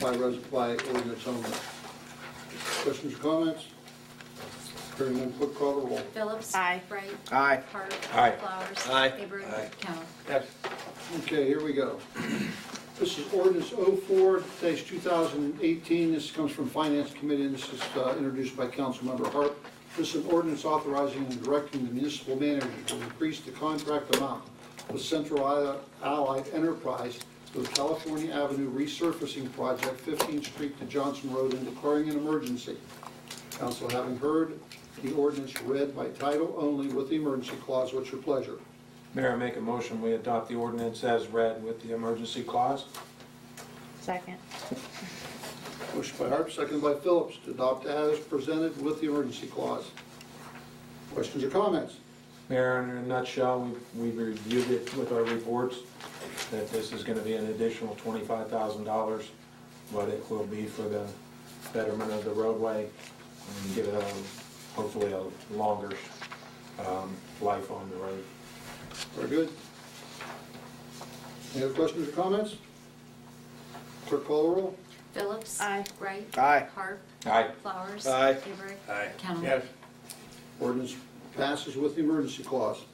by res, by ordinance only. Questions or comments? Hearing none, clerk call the roll. Phillips. Aye. Bright. Aye. Hart. Aye. Flowers. Aye. Avery. Aye. Count. Yes. Okay, here we go. This is ordinance 04 two thousand and eighteen. This comes from Finance Committee, and this is uh, introduced by Councilmember Hart. This is an ordinance authorizing and directing the municipal manager to increase the contract amount with Central Ally- Allied Enterprise for the California Avenue Resurfacing Project, Fifteenth Street to Johnson Road, and declaring an emergency. Council having heard the ordinance read by title only with the emergency clause, what's your pleasure? Mayor, I make a motion, we adopt the ordinance as read with the emergency clause. Second. Motion by Harp, seconded by Phillips, to adopt as presented with the emergency clause. Questions or comments? Mayor, in a nutshell, we we reviewed it with our reports, that this is going to be an additional $25,000, but it will be for the betterment of the roadway and give it a, hopefully a longer um, life on the road. Very good. Any other questions or comments? Clerk call the roll. Phillips. Aye. Bright. Aye. Harp. Aye. Flowers. Aye. Avery. Count. Ordinance passes with the emergency clause.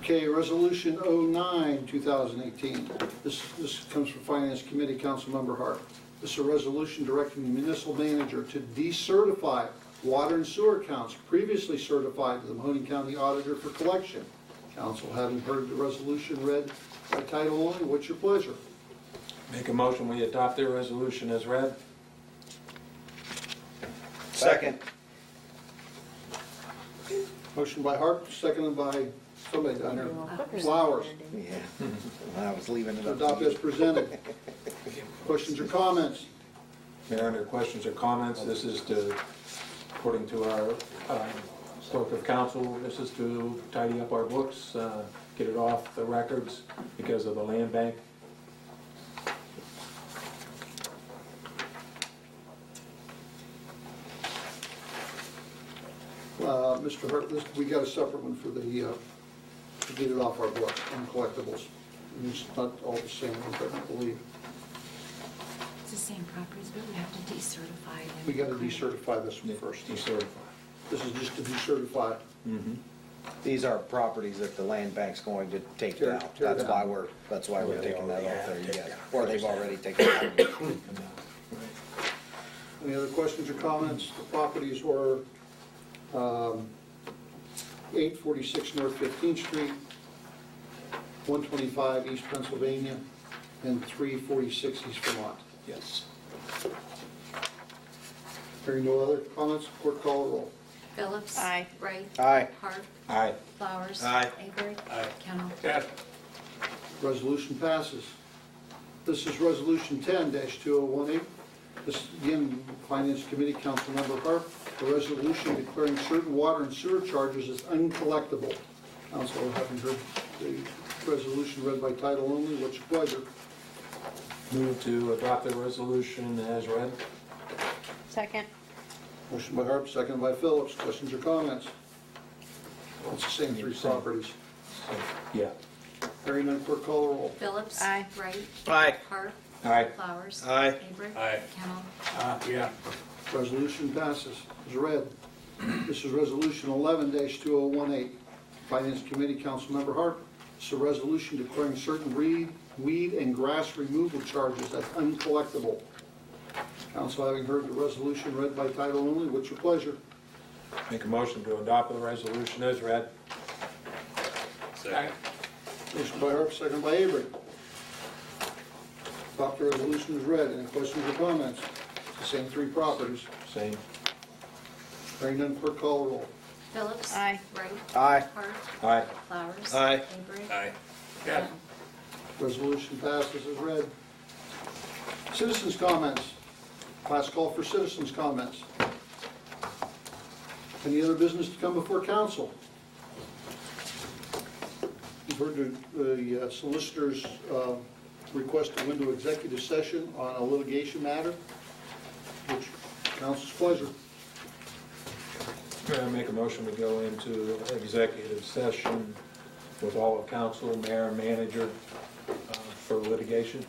Okay, Resolution 09, 2018. This, this comes from Finance Committee, Councilmember Hart. This is a resolution directing the municipal manager to decertify water and sewer accounts previously certified to the Mahoning County Auditor for collection. Council, having heard the resolution read by title only, what's your pleasure? Make a motion, we adopt the resolution as read. Second. Motion by Hart, seconded by somebody down there. Flowers. Yeah, I was leaving it to up adopt to as you. presented. Questions or comments? Mayor, under questions or comments, this is to, according to our um, clerk of council, this is to tidy up our books, uh, get it off the records because of the land bank. Uh, Mr. Hart, this, we got a separate one for the, uh, to get it off our books on collectibles. And It's not all the same, ones, I don't believe. It's the same properties, but we have to decertify them. We got to decertify this one first. Decertify. This is just to decertify. These are properties that the land bank's going to take Tear- down. tear That's down. why we're, that's why Yeah, we're they taking that already off there, have taken yes. down. Or they've already taken it down. Any other questions or comments? The properties were um, 846 North 15th Street, 125 East Pennsylvania, and 346 East Vermont. Yes. Hearing no other comments, court call the roll. Phillips. Aye. Bright. Aye. Harp. Aye. Flowers. Aye. Avery. Aye. Count. Resolution passes. This is Resolution 10-2018. This, again, Finance Committee, Councilmember Harp, a resolution declaring certain water and sewer charges as uncollectible. Council, having heard the resolution read by title only, what's your pleasure? Move to adopt the resolution as read. Second. Motion by Harp, second by Phillips. Questions or comments? It's the same three properties. So, Yeah. Hearing none, clerk call the roll. Phillips. Aye. Bright. Aye. Harp. Aye. Flowers. Aye. Avery. Aye. Count. Yeah. Resolution passes, is read. This is Resolution 11-2018. Finance Committee, Councilmember Harp. It's a resolution declaring certain reed, weed, and grass removal charges as uncollectible. Council, having heard the resolution read by title only, what's your pleasure? Make a motion to adopt the resolution as read. Second. Motion by Harp, second by Avery. Adopt the resolution is read. Any questions or comments? It's the same three properties. Same. Hearing none, clerk call the roll. Phillips. Aye. Wright. Aye. Hart. Aye. Flowers. Aye. Avery. Aye. Count. Resolution passes as read. Citizens' comments. Last call for citizens' comments. Any other business to come before council? You've heard the- the uh, solicitor's uh, request to window executive session on a litigation matter, which council's pleasure. Mayor, I make a motion to go into executive session with all of council, mayor, manager uh, for litigation.